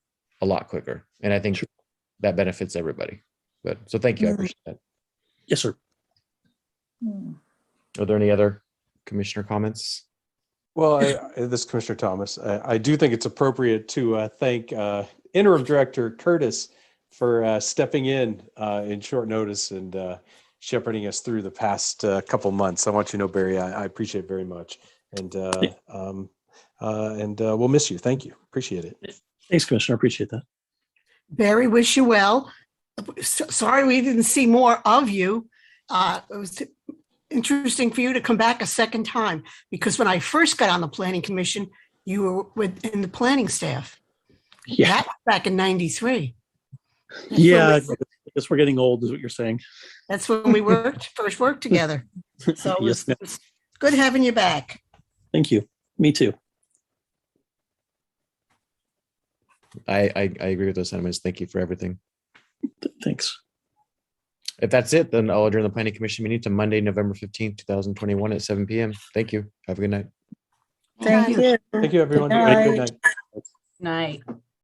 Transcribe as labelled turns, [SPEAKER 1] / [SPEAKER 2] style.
[SPEAKER 1] a lot quicker. And I think
[SPEAKER 2] Sure.
[SPEAKER 1] that benefits everybody. But so thank you. I
[SPEAKER 3] Mhm.
[SPEAKER 1] appreciate that.
[SPEAKER 2] Yes, sir.
[SPEAKER 3] Hmm.
[SPEAKER 1] Are there any other commissioner comments?
[SPEAKER 4] Well, I, I- this is Commissioner Thomas, I, I do think it's appropriate to uh, thank uh, interim director Curtis for uh, stepping in uh, in short notice and uh, shepherding us through the past uh, couple months. I want you to know, Barry, I, I appreciate it very much, and uh,
[SPEAKER 2] Yeah.
[SPEAKER 4] um, uh, and uh, we'll miss you. Thank you. Appreciate it.
[SPEAKER 2] Thanks, Commissioner. I appreciate that.
[SPEAKER 3] Barry, wish you well. S- Sorry we didn't see more of you. Uh, It was interesting for you to come back a second time because when I first got on the planning commission, you were with, in the planning staff.
[SPEAKER 2] Yeah,
[SPEAKER 3] That was Back in 93. That's when we-
[SPEAKER 2] yeah. I guess we're getting old, is what you're saying.
[SPEAKER 3] That's when we worked, first worked together. So it
[SPEAKER 2] Yes,
[SPEAKER 3] was-
[SPEAKER 2] ma'am.
[SPEAKER 3] it's good having you back.
[SPEAKER 2] Thank you. Me too.
[SPEAKER 1] I, I, I agree with those sentiments. Thank you for everything.
[SPEAKER 2] Th- Thanks.
[SPEAKER 1] If that's it, then I'll adjourn the planning commission meeting to Monday, November 15th, 2021 at 7 p.m. Thank you. Have a good night.
[SPEAKER 3] Thank you.
[SPEAKER 4] Thank you, everyone.
[SPEAKER 5] Good
[SPEAKER 4] Have a
[SPEAKER 5] night.
[SPEAKER 4] Good night.
[SPEAKER 5] Night.